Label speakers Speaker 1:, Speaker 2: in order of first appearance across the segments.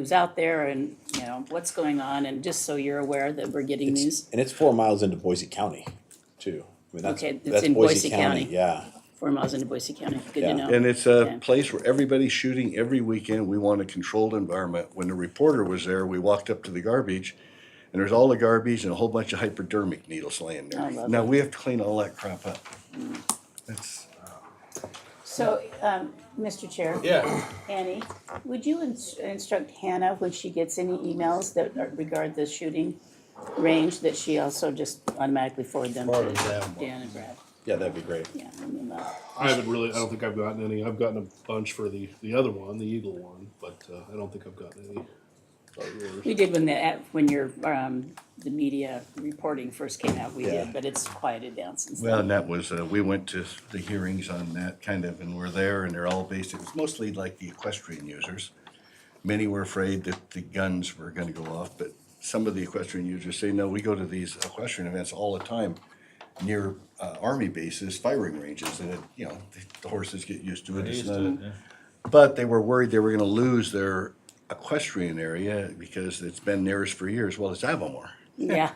Speaker 1: who's out there and, you know, what's going on, and just so you're aware that we're getting news
Speaker 2: And it's four miles into Boise County, too. I mean, that's,
Speaker 1: Okay, it's
Speaker 2: that's
Speaker 1: in
Speaker 2: Boise
Speaker 1: Boise
Speaker 2: County,
Speaker 1: County.
Speaker 2: yeah.
Speaker 1: four miles into Boise County, good
Speaker 2: Yeah.
Speaker 1: to know.
Speaker 3: And it's
Speaker 1: Okay.
Speaker 3: a place where everybody's shooting every weekend. We want a controlled environment. When the reporter was there, we walked up to the garbage and there's all the garbage and a whole bunch of hypodermic needles
Speaker 1: I
Speaker 3: laying there.
Speaker 1: love
Speaker 3: Now,
Speaker 1: it. Mm.
Speaker 3: we have to clean all that crap up. That's,
Speaker 1: So, um, Mr. Chair.
Speaker 4: Yeah,
Speaker 1: Annie, would you ins- instruct Hannah when she gets any emails that are- regard the shooting range, that she also just automatically forward them
Speaker 4: Forward
Speaker 1: to
Speaker 4: them.
Speaker 1: Dan and Brad?
Speaker 2: Yeah, that'd be great.
Speaker 1: Yeah, I mean, uh,
Speaker 5: I haven't really. I don't think I've gotten any. I've gotten a bunch for the the other one, the Eagle one, but uh, I don't think I've gotten any. for yours.
Speaker 1: we did when the, ad- when your, um, the media reporting first came out, we
Speaker 2: Yeah.
Speaker 1: did, but it's quieted down since
Speaker 3: well,
Speaker 1: then.
Speaker 3: and that was, uh, we went to the hearings on that kind of, and we're there and they're all based, it was mostly like the equestrian users. Many were afraid that the guns were gonna go off, but some of the equestrian users say, no, we go to these equestrian events all the time near uh, army bases, firing ranges, and it, you know, the horses get used to it. It's not a- But they were worried they were gonna lose their equestrian area because it's been theirs for years. Well, it's Avamore.
Speaker 1: Yeah,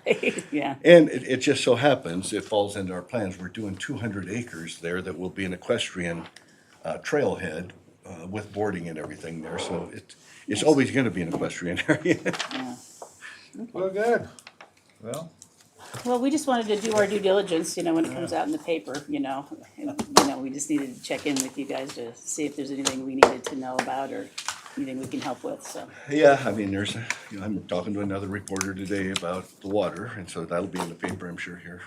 Speaker 1: yeah,
Speaker 3: And it, it just so happens, it falls into our plans, we're doing two hundred acres there that will be an equestrian uh, trailhead uh, with boarding and everything there, so it, it's always gonna be an equestrian area.
Speaker 1: yeah.
Speaker 4: well, good. Well,
Speaker 1: Well, we just wanted to do our due diligence, you know, when it comes out in the paper, you know. And, You know, we just needed to check in with you guys to see if there's anything we needed to know about or anything we can help with, so.
Speaker 3: Yeah, I mean, there's, a- you know, I'm talking to another reporter today about the water, and so that'll be in the paper, I'm sure, here.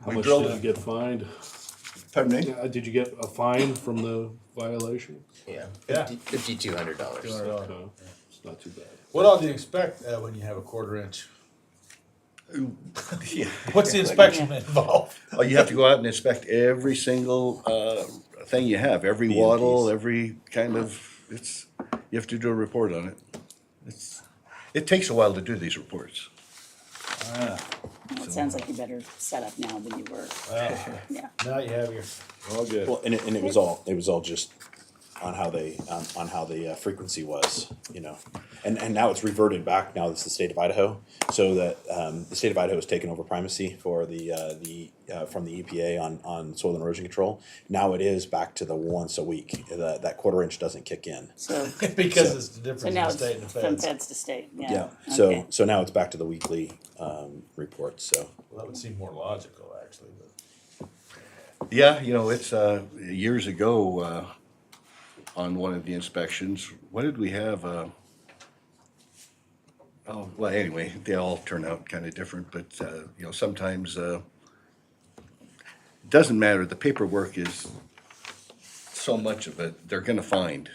Speaker 5: How
Speaker 3: We
Speaker 5: much
Speaker 3: drilled
Speaker 5: did you
Speaker 3: it.
Speaker 5: get fined?
Speaker 3: Pardon me?
Speaker 5: Yeah, did you get a fine from the violation?
Speaker 6: Yeah,
Speaker 4: Yeah.
Speaker 6: fifty-two hundred dollars.
Speaker 5: Okay, it's not too bad.
Speaker 4: what all do you expect uh, when you have a quarter inch?
Speaker 3: Yeah.
Speaker 4: What's the inspection involved?
Speaker 3: Oh, you have to go out and inspect every single, uh, thing you have, every wattle, every kind of, it's, you have to do a report on it. It's, it takes a while to do these reports.
Speaker 1: Well, It sounds like you're better set up now than you were,
Speaker 4: Well,
Speaker 1: yeah.
Speaker 4: now you have your.
Speaker 3: All good.
Speaker 2: Well, and it, and it was all, it was all just on how they, on, on how the uh, frequency was, you know. And, and now it's reverted back, now it's the state of Idaho, so that, um, the state of Idaho has taken over primacy for the, uh, the, uh, from the EPA on, on soil and erosion control. Now it is back to the once a week, uh, that, that quarter inch doesn't kick in.
Speaker 1: So,
Speaker 4: Because it's the
Speaker 1: so
Speaker 4: difference
Speaker 1: now
Speaker 4: in
Speaker 1: it's
Speaker 4: state and the
Speaker 1: from
Speaker 4: feds.
Speaker 1: feds to state, yeah.
Speaker 2: Yeah, so,
Speaker 1: Okay.
Speaker 2: so now it's back to the weekly, um, reports, so.
Speaker 4: Well, that would seem more logical, actually, but.
Speaker 3: Yeah, you know, it's, uh, years ago, uh, on one of the inspections, what did we have, uh? Oh, well, anyway, they all turn out kind of different, but, uh, you know, sometimes, uh, doesn't matter, the paperwork is so much of it, they're gonna find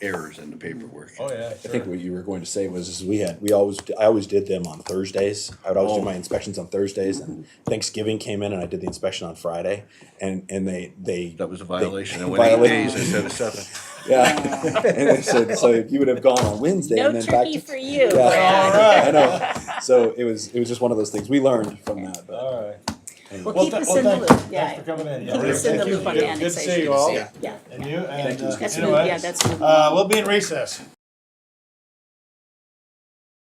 Speaker 3: errors in the paperwork.
Speaker 4: Oh, yeah,
Speaker 2: I think
Speaker 4: sure.
Speaker 2: what you were going to say was is we had we always I always did them on Thursdays. I would always do my inspections on Thursdays, and
Speaker 1: Mm-hmm.
Speaker 2: Thanksgiving came in, and I did the inspection on Friday, and and they they
Speaker 3: That was a
Speaker 2: they-
Speaker 3: violation, I went eight
Speaker 2: violation.
Speaker 3: days instead of seven.
Speaker 2: yeah. and they said so you would have gone on Wednesday, and
Speaker 1: No
Speaker 2: then back
Speaker 1: turkey
Speaker 2: to
Speaker 1: for you.
Speaker 2: Yeah.
Speaker 1: Brad.
Speaker 2: I know. So it was it was just one of those things we learned from that. But
Speaker 4: All right.
Speaker 1: Well,
Speaker 4: Well,
Speaker 1: keep
Speaker 4: th-
Speaker 1: us
Speaker 4: well,
Speaker 1: in the
Speaker 4: thank you.
Speaker 1: loop, yeah.
Speaker 4: Thanks for coming in. Yeah,
Speaker 1: Keep
Speaker 4: really,
Speaker 1: us in the
Speaker 4: thank you.
Speaker 1: loop on the
Speaker 4: Good- Good to see
Speaker 1: annexation.
Speaker 4: you all.
Speaker 6: Yeah.
Speaker 1: Yeah,
Speaker 4: And you,
Speaker 2: Thank
Speaker 4: and,
Speaker 2: you.
Speaker 4: uh,
Speaker 1: That's
Speaker 4: you
Speaker 1: moved-
Speaker 4: know what?
Speaker 1: yeah, that's moved
Speaker 4: Uh, we'll be in recess.